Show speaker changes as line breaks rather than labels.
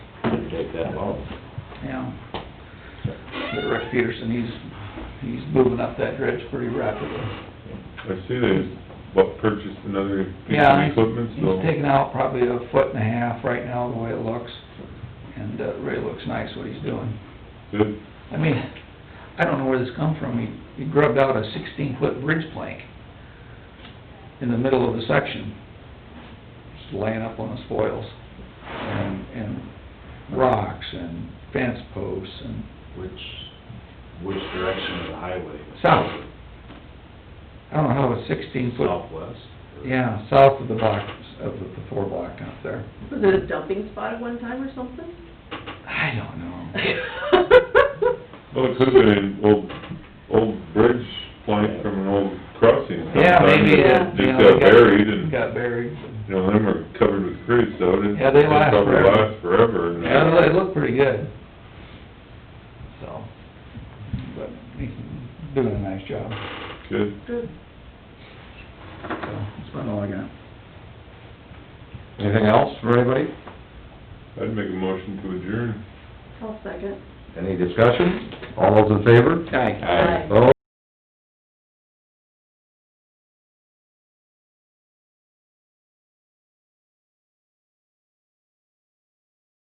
shouldn't take that long.
Yeah. But Rick Peterson, he's, he's moving up that dredge pretty rapidly.
I see they, what, purchased another piece
Yeah,
of
he's-
equipment, so.
He's taken out probably a foot and a half right now, the way it looks, and uh, it really looks nice what he's doing.
Good,
I mean, I don't know where this come from, he, he grubbed out a sixteen-foot bridge plank in the middle of the section, just laying up on the spoils, and, and rocks and fence posts and
Which, which direction of the highway?
South. I don't know how a sixteen foot,
Southwest? or-
yeah, south of the block, of the the four block out there.
Was it a dumping spot at one time or something?
I don't know.
well, it could've been an old, old bridge plank from an old crossing sometime.
Yeah, maybe,
that
yeah.
Just got buried and,
Got buried.
you know, them are covered with grease, so it.
Yeah, they last
Probably
forever.
last forever, and. uh,
Yeah, they look pretty good. So, but he's doing a nice job,
Good,
Good.
so that's about all I got.
Anything else for anybody?
I'd make a motion to adjourn.
I'll second.
Any discussion? All those in favor?
Aye.
Aye.
Opposed?